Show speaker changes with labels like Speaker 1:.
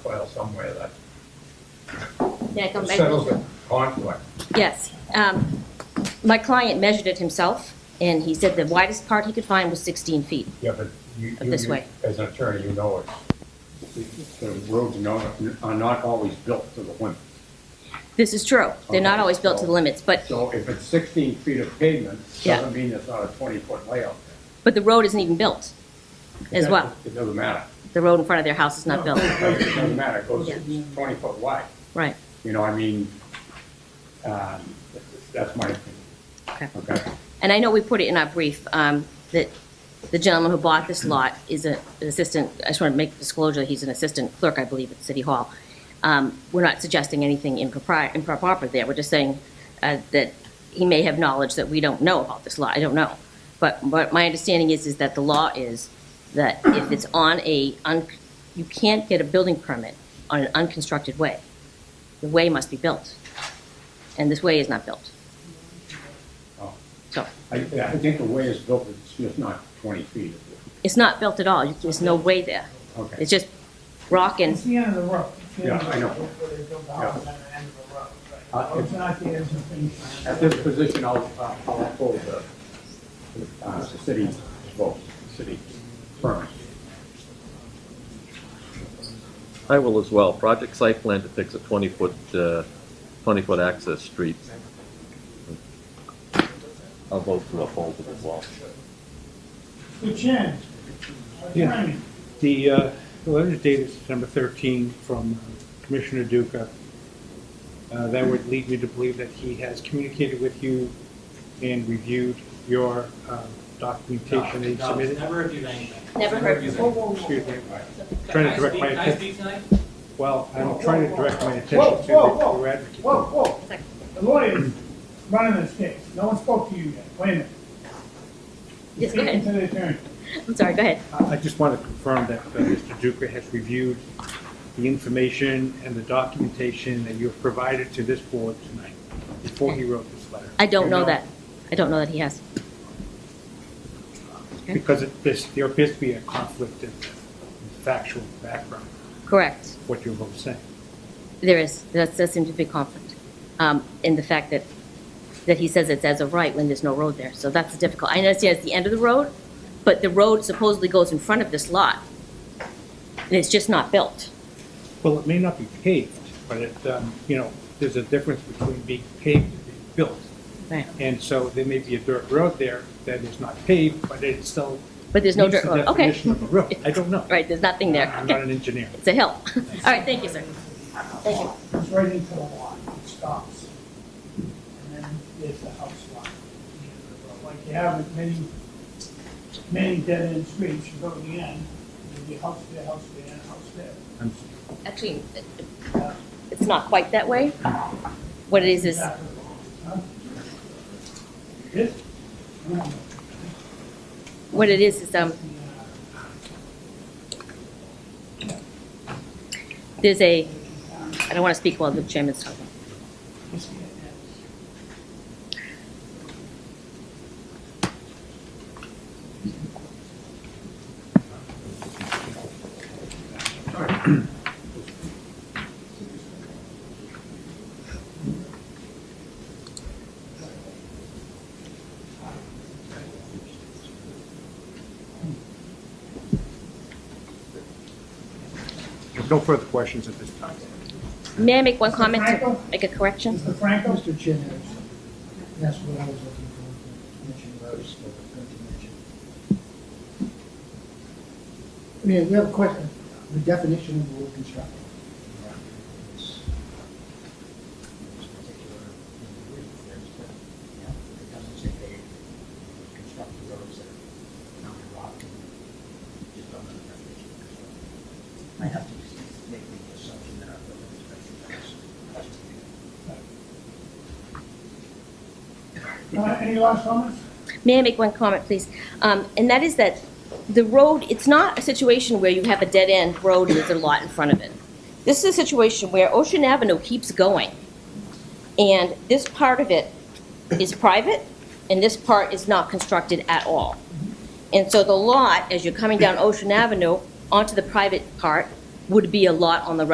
Speaker 1: file somewhere that
Speaker 2: May I come back?
Speaker 1: settles the conflict.
Speaker 2: Yes. Um, My client measured it himself, and he said the widest part he could find was 16 feet.
Speaker 1: Yeah, but you,
Speaker 2: Of
Speaker 1: you,
Speaker 2: this
Speaker 1: you-
Speaker 2: way.
Speaker 1: as an attorney, you know it. The roads are not, are not always built to the limit.
Speaker 2: This is true. They're not always built to the limits, but,
Speaker 1: So if it's sixteen feet of pavement,
Speaker 2: Yeah.
Speaker 1: doesn't mean it's not a twenty-foot layout.
Speaker 2: but the road isn't even built as
Speaker 1: That-
Speaker 2: well.
Speaker 1: It doesn't matter.
Speaker 2: The road in front of their house is not built.
Speaker 1: It doesn't matter, it goes
Speaker 2: Yeah.
Speaker 1: twenty-foot wide.
Speaker 2: Right.
Speaker 1: You know, I mean, um, that's my opinion,
Speaker 2: Okay.
Speaker 1: okay?
Speaker 2: And I know we put it in our brief, um, that the gentleman who bought this lot is a- an assistant, I just want to make disclosure, he's an assistant clerk, I believe, at City Hall. Um, We're not suggesting anything impropri- improper there, we're just saying uh, that he may have knowledge that we don't know about this lot, I don't know. But but my understanding is, is that the law is that if it's on a, un- you can't get a building permit on an unconstructed way. The way must be built, and this way is not built,
Speaker 1: Oh.
Speaker 2: so.
Speaker 1: I, I think the way it's built, it's just not twenty feet.
Speaker 2: It's not built at all, there's no way there.
Speaker 1: Okay.
Speaker 2: It's just rock and,
Speaker 3: It's the end of the road. It's the end of
Speaker 1: Yeah,
Speaker 3: the
Speaker 1: I know.
Speaker 3: road Where they build the house on the end of the road.
Speaker 1: Uh,
Speaker 3: right? So It's not the end of the thing.
Speaker 1: At this position, I'll, uh, I'll uphold the, uh, the city's vote, city permit.
Speaker 4: I will as well. Project site plan depicts a 20-foot, 20-foot access street. I'll vote to uphold it as well.
Speaker 3: The chin.
Speaker 5: Yeah. The uh, the letter dated September 13 from Commissioner Duca, Uh, that would lead me to believe that he has communicated with you and reviewed your um, documentation that you
Speaker 6: No,
Speaker 5: submitted.
Speaker 6: Never reviewed anything.
Speaker 2: Never heard.
Speaker 6: reviewed
Speaker 3: Whoa,
Speaker 6: anything.
Speaker 3: whoa,
Speaker 5: Excuse me,
Speaker 6: Can
Speaker 5: trying
Speaker 6: I
Speaker 5: to direct
Speaker 6: speak,
Speaker 5: my
Speaker 6: can I
Speaker 5: attention,
Speaker 6: speak tonight?
Speaker 5: well, I'm trying to direct my
Speaker 3: Whoa,
Speaker 5: attention to
Speaker 3: whoa,
Speaker 5: the-
Speaker 3: whoa.
Speaker 5: your advocate.
Speaker 3: whoa, whoa. The lawyer's running this case. No one spoke to you yet. Wait a minute.
Speaker 2: Yes, go ahead.
Speaker 3: Speaking to the attorney.
Speaker 2: I'm sorry, go ahead.
Speaker 5: I I just want to confirm that uh, Mr. Duca has reviewed the information and the documentation that you have provided to this board tonight before he wrote this letter.
Speaker 2: I don't
Speaker 5: You
Speaker 2: know that. I don't know that he has.
Speaker 5: Because it- this, there appears to be a conflict in the factual background,
Speaker 2: Correct.
Speaker 5: of what you're both saying.
Speaker 2: There is, that does seem to be conflict. Um, in the fact that, that he says it's as of right when there's no road there, so that's difficult. I understand it's the end of the road, but the road supposedly goes in front of this lot. And it's just not built.
Speaker 5: Well, it may not be paved, but it, um, you know, there's a difference between being paved and being built.
Speaker 2: Right.
Speaker 5: And so there may be a dirt road there that is not paved, but it still.
Speaker 2: But there's no
Speaker 5: meets
Speaker 2: dirt
Speaker 5: the
Speaker 2: road, okay.
Speaker 5: definition of a road. I don't know.
Speaker 2: Right, there's nothing there.
Speaker 5: I'm not
Speaker 2: Okay,
Speaker 5: an engineer.
Speaker 2: it's a hill. All right, thank you, sir. Thank you.
Speaker 3: It's right into the lot. It stops. And then there's the house lot. at the end of the road. Like you have with many, many dead end streets. You go to the end, there'll be a house there, house there, and a house there.
Speaker 5: I'm-
Speaker 2: Actually, it- it's not quite that way. What it is is,
Speaker 3: This?
Speaker 2: what it is is, um, there's a, I don't want to speak while the chairman's talking.
Speaker 5: There's no further questions at this time.
Speaker 2: May I make one
Speaker 3: Mr.
Speaker 2: comment to
Speaker 3: Franco?
Speaker 2: make a correction?
Speaker 3: Mr. Franco?
Speaker 7: Mr. Chin has something. That's what I was looking for, mention Rose, but I forgot to mention. I mean, we have a question, the definition of road construction.
Speaker 8: It doesn't say they construct the roads that are not rock and just don't have the definition of construction. I have to make the assumption that our building inspection does.
Speaker 3: Uh, Any last comments?
Speaker 2: May I make one comment, please? Um, And that is that the road, it's not a situation where you have a dead-end road and there's a lot in front of it. This is a situation where Ocean Avenue keeps going, and this part of it is private, and this part is not constructed at all. And so the lot, as you're coming down Ocean Avenue onto the private part, would be a lot on the right.